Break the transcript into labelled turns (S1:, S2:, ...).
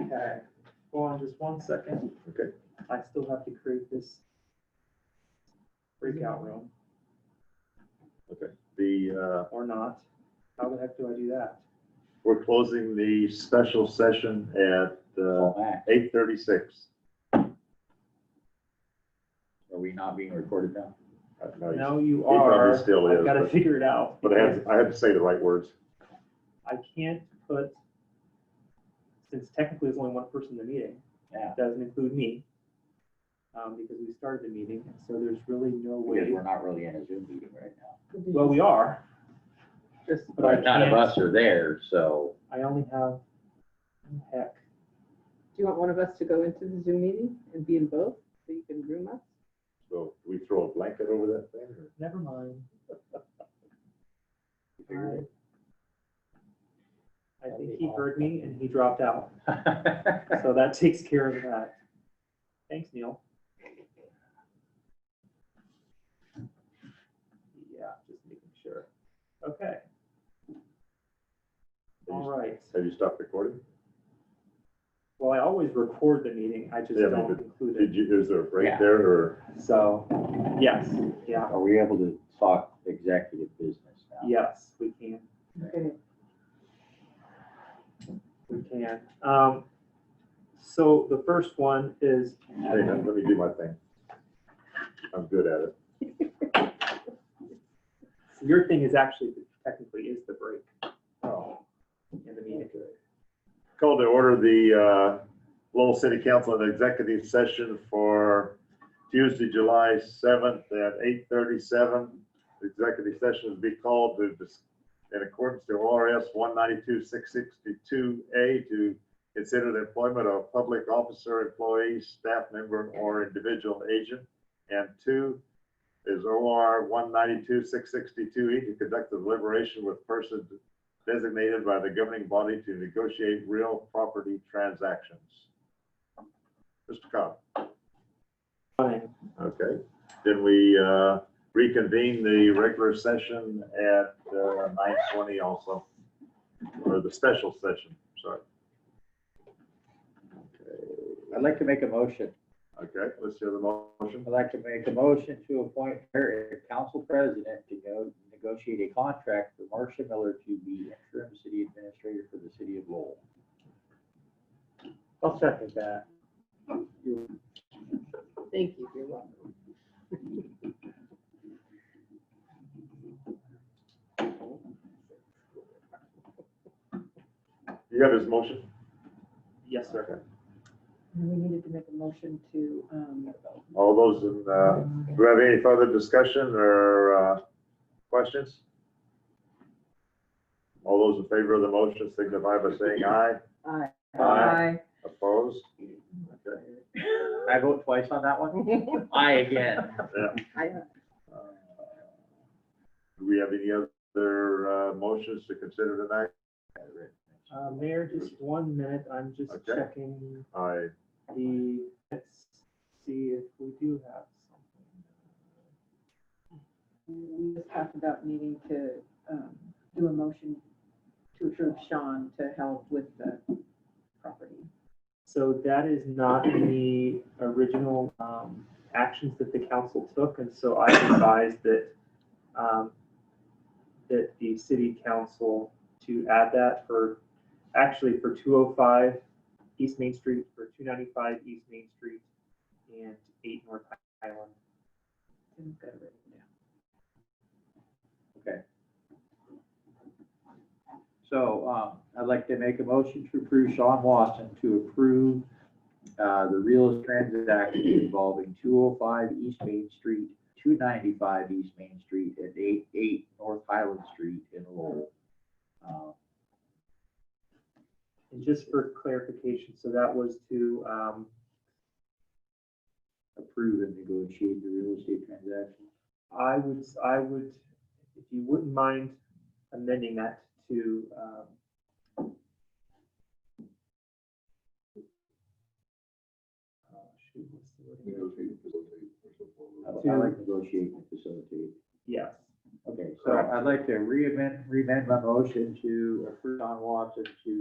S1: Okay, hold on just one second.
S2: Okay.
S1: I still have to create this breakout room
S2: The, uh,
S1: or not. How the heck do I do that?
S2: we're closing the special session at, uh,
S3: Call back.
S2: eight thirty-six.
S3: Are we not being recorded now?
S2: Oh,
S1: Now you
S2: probably
S1: are,
S2: still is,
S1: I've got to
S2: but-
S1: figure it out.
S2: But I have, I have to say the right words.
S1: I can't put, since technically there's only one person in the meeting.
S3: Yeah.
S1: Doesn't include me. Um, because we started the meeting, and so there's really no
S3: Because
S1: way,
S3: we're not really in a Zoom meeting right now.
S1: well, we are. Just, but I
S3: None of
S1: can't,
S3: us are there, so
S1: I only have, heck,
S4: Do you want one of us to go into the Zoom meeting and be in both so you can groom us?
S2: So we throw a blanket over that thing or?
S1: never mind.
S3: you figured
S1: I I think he heard me and he dropped out.
S3: it.
S1: So that takes care of that. Thanks, Neil. Yeah, just making sure. Okay. All right.
S2: Have you stopped recording?
S1: Well, I always record the meeting. I just
S2: Yeah, but
S1: don't include
S2: Did
S1: it.
S2: you, is there a break
S3: Yeah.
S2: there or?
S1: So, yes, yeah,
S3: Are we able to talk executive business now?
S1: yes, we can.
S4: Okay.
S1: We can. Um, so the first one is,
S2: Hey, man, let me do my thing. I'm good at it.
S1: your thing is actually technically is the break
S2: Oh,
S1: in the meeting.
S2: Call to order the uh, Lowell City Council and Executive Session for Tuesday, July 7th at 8:37. Executive session is be called to, dis- in accordance to ORS 192-662A to consider the employment of public officer, employee, staff member, or individual agent. And two is OR 192-662E E to conduct the deliberation with persons designated by the governing body to negotiate real property transactions. Mr. Cobb?
S1: Fine.
S2: Okay, then we uh, reconvene the regular session at uh, nine twenty also, or the special session, sorry.
S3: I'd like to make a motion.
S2: Okay, let's hear the motion.
S3: I'd like to make a motion to appoint her as council president to go negotiate a contract for Marcia Miller to be interim city administrator for the city of Lowell.
S5: I'll second that.
S4: Thank you, you're welcome.
S2: You have his motion?
S1: Yes, sir.
S4: And we needed to make a motion to, um,
S2: All those, in, uh, do we have any further discussion or uh, questions? All those in favor of the motion signify by saying aye.
S4: aye.
S2: Aye. Opposed? Okay.
S3: I vote twice on that one? I
S4: Aye.
S3: again.
S4: Aye.
S2: Uh, Do we have any other uh, motions to consider tonight?
S1: Uh, Mayor, just one minute, I'm just
S2: Okay.
S1: checking
S2: I,
S1: the, let's see if we do have something.
S4: We just talked about needing to, um, do a motion to approve Sean to help with the property.
S1: So that is not in the original, um, actions that the council took, and so I advise that, um, that the city council to add that for, actually for two oh five East Main Street, for two ninety-five East Main Street, and eight North Island.
S4: Didn't get it written down.
S3: So um, I'd like to make a motion to approve Sean Watson to approve uh, the real transaction involving 205 East Main Street, 295 East Main Street, and 88 North Highland Street in Lowell. Uh,
S1: And just for clarification, so that was to, um,
S3: Approve and negotiate the real estate transaction.
S1: I would, I would, if you wouldn't mind amending that to, um, uh, shoot, what's the word?
S3: I- I like negotiate and facilitate.
S1: Yes,
S3: Okay, so
S2: Correct.
S3: I'd like to re-amend, re-amend my motion to approve Don Watson to